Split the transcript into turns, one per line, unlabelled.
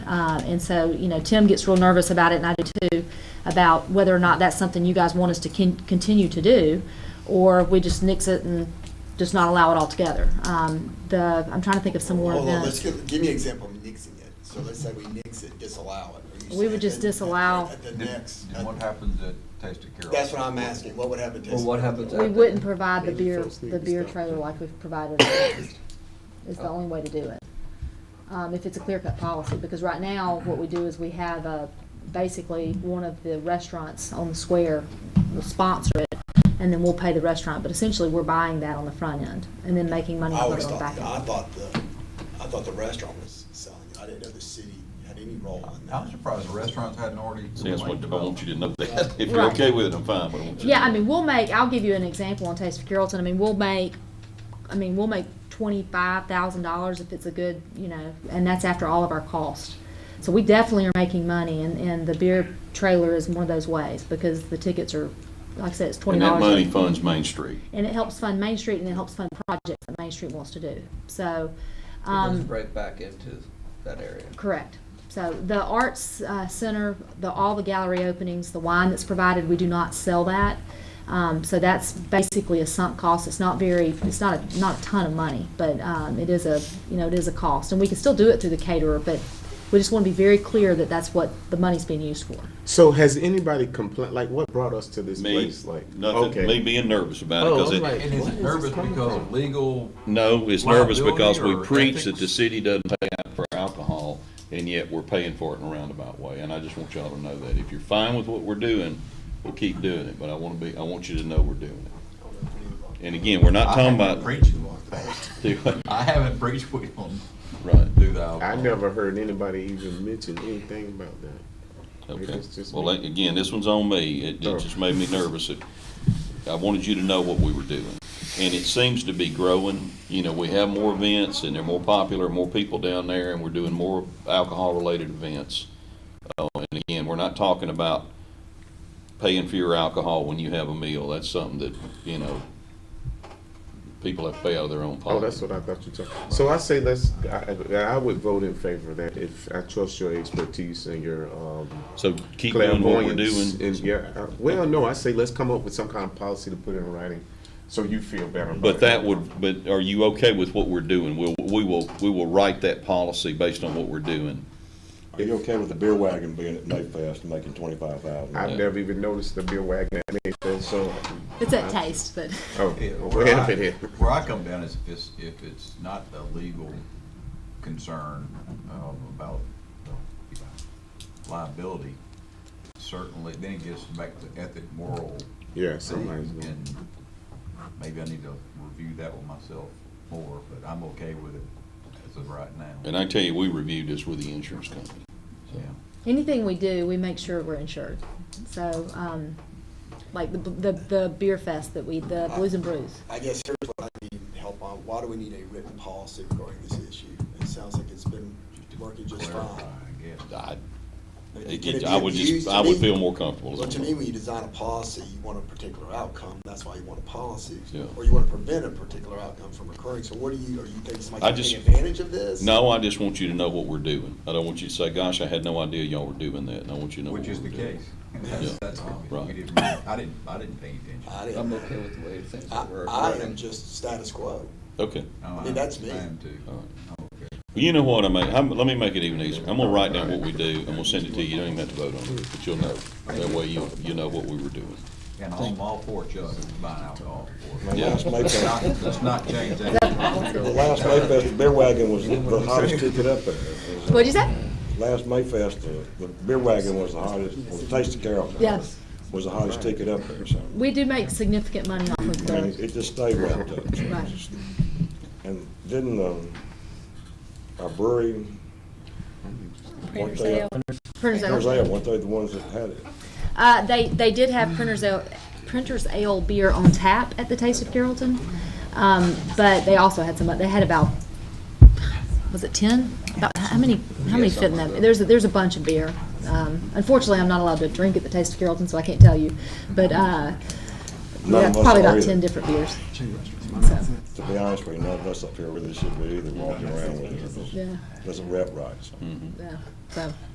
Uh, and so, you know, Tim gets real nervous about it, and I do too, about whether or not that's something you guys want us to con- continue to do, or we just nix it and just not allow it altogether. Um, the, I'm trying to think of some more
Hold on, let's
events.
give, give me an example of nixing it. So let's say we nix it, disallow it. Are you
We would
saying
just
then-
disallow-
At the
Then-
next,
Then what happens at Taste of Carroll?
that's what I'm asking. What would happen to?
Well, what happens
We
at-
wouldn't provide the
uh, Maybe
beer,
folks need
the
to
beer
stop. Oh.
trailer like we've provided in the past, is the only way to do it. Um, if it's a clear cut policy, because right now, what we do is we have a, basically, one of the restaurants on the square will sponsor it, and then we'll pay the restaurant, but essentially, we're buying that on the front end, and then making money
I
on
always
the
thought,
back
I
end.
thought the, I thought the restaurant was selling it. I didn't know the city had any role in that.
I'm surprised the restaurants hadn't already.
See, that's what, I want you to know that. If you're
Right.
okay with it, I'm fine, but I want you to.
Yeah,
know.
I mean, we'll make, I'll give you an example on Taste of Carrollton, I mean, we'll make, I mean, we'll make twenty-five thousand dollars if it's a good, you know, and that's after all of our costs. So we definitely are making money, and, and the beer trailer is one of those ways, because the tickets are, like I said, it's twenty
And that
dollars.
money funds Main Street.
And it helps fund Main Street, and it helps fund projects that Main Street wants to do, so,
It goes
um,
right back into that area.
correct. So the Arts uh, Center, the, all the gallery openings, the wine that's provided, we do not sell that. Um, So that's basically a sunk cost. It's not very, it's not, a not a ton of money, but um, it is a, you know, it is a cost. And we can still do it through the caterer, but we just want to be very clear that that's what the money's being used for.
So has anybody complained? Like, what brought us to this
Me,
place? Like,
nothing, me being nervous about it,
Oh,
because
I'm
it,
like-
And is it nervous because of legal?
No, it's nervous
Liability
because we
or
preach that the
ethics?
city doesn't pay out for alcohol, and yet we're paying for it in a roundabout way, and I just want y'all to know that. If you're fine with what we're doing, we'll keep doing it, but I wanna be, I want you to know we're doing it. And again, we're not
I
talking
haven't
about,
Preached like that.
right,
I haven't preached we don't
okay.
do the alcohol.
I never heard anybody even mention anything about that. It's just
Well,
me.
like, again, this one's on me. It,
Oh.
it just made me nervous. It- I wanted you to know what we were doing. And it seems to be growing. You know, we have more events and they're more popular, more people down there, and we're doing more alcohol-related events. Oh, and again, we're not talking about paying for your alcohol when you have a meal. That's something that, you know, people have to pay out of their own pocket.
Oh, that's what I thought you were talking. So I say let's. I, I I would vote in favor of that if I trust your expertise and your um,
So keep doing what we're
clairvoyance.
doing.
And yeah, I- well, no, I say let's come up with some kind of policy to put in writing, so you feel better. about
But
it.
that would, but are you okay with what we're doing? We'll, we will, we will write that policy based on what we're doing.
Are you okay with the beer wagon being at Mayfest and making twenty-five thousand?
I've never even noticed the beer wagon at Mayfield. So,
It's at taste, but.
oh,
Yeah,
we're
where I,
helping here.
where I come down is if it's, if it's not a legal concern, um, about you know, liability, certainly, then it gets back to ethic, moral
Yeah, somebody's.
things, and maybe I need to review that with myself more, but I'm okay with it as of right now.
And I tell you, we reviewed this with the insurance company.
Yeah.
anything we do, we make sure we're insured. So, um, like the, the, the beer fest that we, the Blues and Brews.
I guess here's what I need help on. Why do we need a written policy regarding this issue? It sounds like it's been working just
Clarify,
fine.
I guess.
I,
Can it
it-
be
I would
abused?
just,
To
I would
me-
feel more comfortable.
Well, to me, when you design a policy, you want a particular outcome, that's why you want a policy.
Yeah.
Or you want to prevent a particular outcome from occurring, so what do you, are you thinking
I
somebody can
just-
take advantage of this?
No, I just want you to know what we're doing. I don't want you to say, gosh, I had no idea y'all were doing that, and I want you to know what
Which
we're
is the
doing.
case. That's,
Yeah.
that's obvious.
Right.
We didn't, I didn't, I didn't pay attention.
I
I'm
didn't,
okay with the way things
I,
are.
I am just status quo.
Okay.
No,
I mean, that's me.
I am too.
All right.
I'm okay.
Well, You know what, I mean, I'm, let me make it even easier. I'm gonna write down what we do, and we'll send it to you. You don't even have to vote on it, but you'll know. That way you, you know what we were doing.
And I'm all for Chuck buying alcohol. for it.
Yeah.
Last
Let's
Mayfest,
not, let's not change that.
the last Mayfest, the beer wagon was the hottest ticket up there. It was, uh,
What'd you say?
Last Mayfest, the, the beer wagon was the hottest, well, the Taste of Carrollton.
Yes.
Was the hottest ticket up there, so,
We do make significant money off of
I mean,
the,
it just stayed right up. so.
Right.
And didn't, um, our brewery, weren't they,
Printers
was
Ale.
they, weren't they the ones that had it?
Uh, they, they did have Printers Ale, Printers Ale beer on tap at the Taste of Carrollton. Um, but they also had some, they had about, was it ten? About, how many, how many fit in that? There's, a- there's a bunch of beer. Um, unfortunately, I'm not allowed to drink at the Taste of Carrollton, so I can't tell you. But, uh,
None
Yeah,
of us
probably
are
about
either.
ten different beers. So,
To be honest with you, none of us up here really should be either walking around with it.
yeah,
Doesn't rep right, so.
Mhm.
yeah, so.